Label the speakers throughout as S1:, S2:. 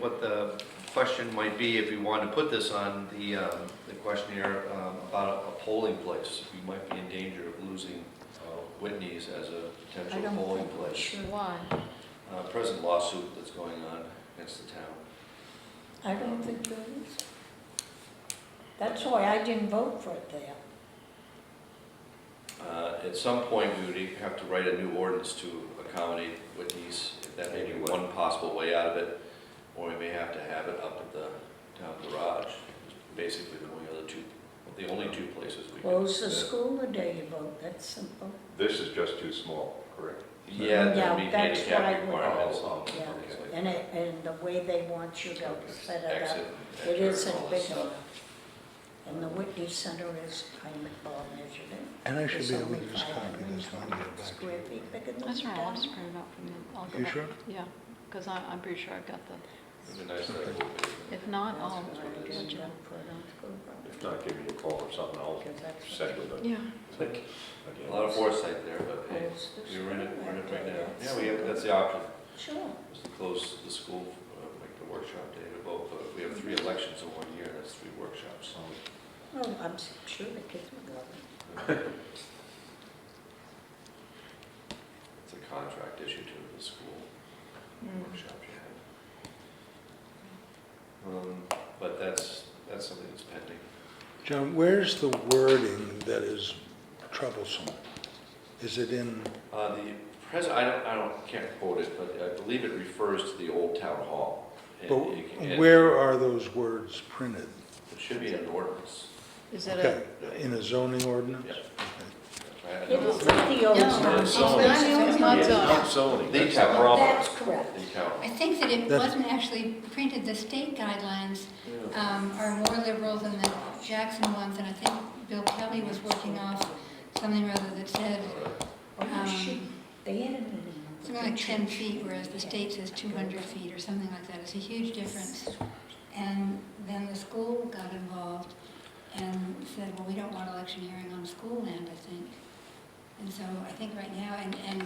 S1: what the question might be if we wanted to put this on the, um, the questionnaire um, about a polling place. We might be in danger of losing uh, Whitney's as a
S2: I
S1: potential
S2: don't
S1: polling
S2: think we
S1: place.
S2: should.
S3: Why?
S1: Uh, Present lawsuit that's going on against the town.
S2: I don't think there is. That's why I didn't vote for it there.
S1: Uh, At some point, we would have to write a new ordinance to accommodate Whitney's. That may be one possible way out of it, or we may have to have it up at the town garage. Basically, the only other two, the only two places we can.
S2: Close the school the day you vote, that's simple.
S4: This is just too small, correct?
S1: Yeah,
S2: Yeah,
S1: there'd be
S2: that's what I
S1: handicap
S2: would-
S1: requirements.
S4: Oh,
S2: Yeah,
S1: things like
S2: and it, and the way they want you to set it
S1: Exit.
S2: up,
S1: enter,
S2: it
S1: and all
S2: isn't
S1: that
S2: big
S1: stuff.
S2: enough. And the Whitney Center is, I well measured it.
S5: And I should
S2: It's
S5: be able
S2: only
S5: to just copy this one and get
S2: 500
S5: it back to
S2: Square
S5: you.
S2: feet bigger than
S3: That's all right, I'll
S2: town.
S3: just print it out from the, I'll go
S5: You
S3: back-
S5: sure?
S3: Yeah, because I'm, I'm pretty sure I've got the,
S1: It'd be nice to have a little bit.
S3: if not, I'll
S2: That's what I
S3: get
S2: did,
S3: you.
S2: I put it on school property,
S4: If not, give me a call or something, I'll
S2: 'cause that's
S4: set
S2: what
S4: with it.
S3: Yeah,
S4: Again,
S1: A lot of foresight there, but hey,
S2: holds the
S1: we're in it,
S2: school
S1: we're in it right now.
S2: that day.
S1: Yeah, we have, that's the option.
S2: Sure.
S1: is to close the school, uh, make the workshop day to vote, but we have three elections in one year, that's three workshops.
S2: Well, I'm s- sure the kids would love it.
S1: It's a contract issue to the school
S2: Hmm.
S3: Mm.
S1: workshop you have. Um, But that's, that's something that's pending.
S5: John, where's the wording that is troublesome? Is it in,
S1: Uh, The present, I don't, I don't, can't quote it, but I believe it refers to the old town hall. And
S5: but
S1: it can- and
S5: where are those words printed?
S1: It should be an ordinance.
S3: is it
S5: Okay,
S3: a,
S5: in a zoning ordinance?
S1: Yeah.
S5: Okay.
S1: I- I
S2: It
S1: don't know.
S2: is not the old
S3: Yeah.
S2: town.
S1: It's not
S3: It's not
S4: It's
S3: zoning.
S4: not zoning.
S1: The
S4: that's
S1: town
S4: not-
S1: hall.
S2: That's correct.
S1: The town.
S6: I think that it
S5: That's-
S6: wasn't actually printed, the state guidelines
S1: Yeah.
S6: um, are more liberal than the Jackson ones, and I think Bill Kelly was working off something rather that said
S1: All right.
S2: Oh, shoot,
S6: um,
S2: they had it
S6: something like 10 feet, whereas the state says 200 feet or something like that. It's a huge difference. And then the school got involved and said, well, we don't want electioneering on school land, I think. And so I think right now, and, and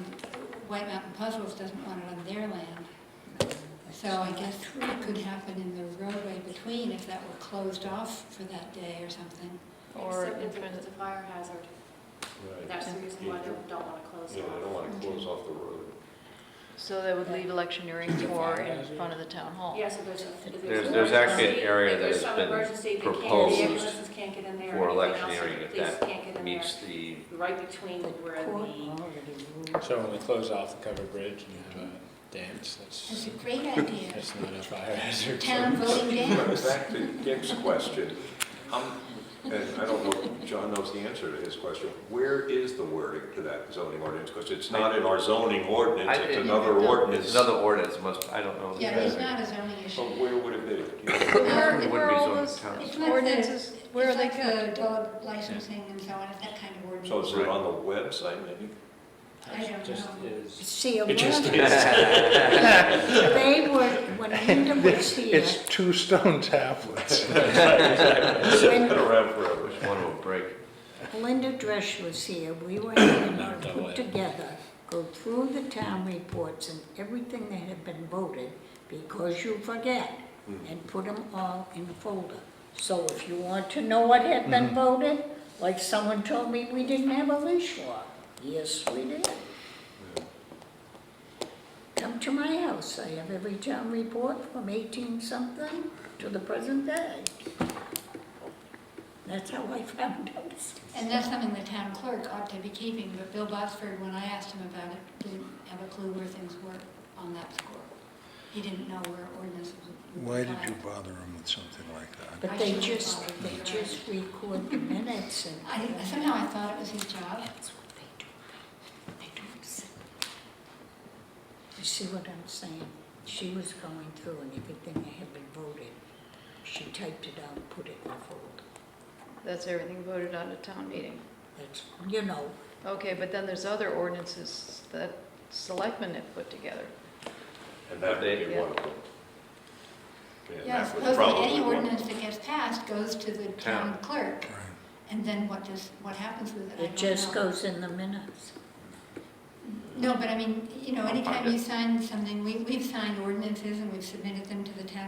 S6: White Mountain Puzzles doesn't want it on their land. So I guess it could happen in the roadway between if that were closed off for that day or something.
S3: or
S7: Except
S3: in
S7: if
S3: front
S7: it's a fire hazard,
S4: Right.
S7: that's the reason why they don't want to close
S4: Yeah, I don't
S7: it off.
S4: want to close off the road.
S3: so that would leave electioneering for in front of the town hall?
S7: Yeah, so there's a. if
S1: There's-
S7: an
S1: there's actually an
S7: emergency,
S1: area
S7: if
S1: that
S7: there's
S1: has
S7: some
S1: been
S7: emergency, they can't- the
S1: proposed
S7: ambulances can't get in there
S1: For
S7: or anything else,
S1: electioneering,
S7: the
S1: if
S7: police can't get
S1: that
S7: in
S1: meets
S7: there.
S1: the
S7: Right between where the,
S8: So when we close off the covered bridge and you have a dance,
S6: That's
S8: that's,
S6: a great idea.
S8: that's not a fire hazard.
S6: Town voting
S4: But
S6: dance.
S4: back to Dick's question, um, and I don't know, if John knows the answer to his question. Where is the wording to that zoning ordinance? Because it's not in our zoning ordinance,
S1: I-
S4: it's
S1: it-
S4: another
S1: It's
S4: ordinance.
S1: another ordinance, must, I don't know.
S6: Yeah, it's not a zoning
S4: So
S6: issue.
S4: where would it be? Do you know?
S3: Where,
S1: It wouldn't
S3: where
S1: be
S3: all
S1: zoned
S3: those
S1: town.
S6: It's like the,
S3: ordinances, where are
S6: it's
S3: they
S6: like
S3: kept?
S6: the dog licensing and so on, it's that kind of
S4: So
S6: ordinance.
S4: is it on the website maybe?
S6: I don't
S8: Just
S6: know.
S8: is.
S2: See, a
S8: It just
S2: word-
S8: is.
S2: they were, when Linda was here,
S5: It's two stone tablets.
S4: Been
S2: when
S4: around forever.
S1: Just want to break.
S2: Linda Dresch was here, we were having her
S8: Not
S2: put
S8: going.
S2: together, go through the town reports and everything that had been voted, because you forget, and put them all in a folder. So if you want to know what had been voted, like someone told me we didn't have a leash law. Yes, we did. Come to my house, I have every town report from eighteen something to the present day. That's how I found out.
S6: And that's something the town clerk ought to be keeping, but Bill Botsford, when I asked him about it, didn't have a clue where things were on that score. He didn't know where ordinance was.
S5: Why did you bother him with something like that?
S2: But they just, they just record the minutes and.
S6: I, somehow I thought it was his job.
S2: That's what they do. They don't send. You see what I'm saying? She was going through and everything that had been voted, she typed it out, and put it in a folder.
S3: That's everything voted on at town meeting.
S2: That's, you know,
S3: Okay, but then there's other ordinances that selectmen have put together.
S4: And that would be one of them. And
S6: Yeah,
S4: that would
S6: supposedly
S4: probably
S6: any
S4: one-
S6: ordinance that gets passed goes to the town clerk, and then what does, what happens with it, I don't know.
S2: it just goes in the minutes.
S6: No, but I mean, you know, anytime you sign something, we, we've signed ordinances and we've submitted them to the town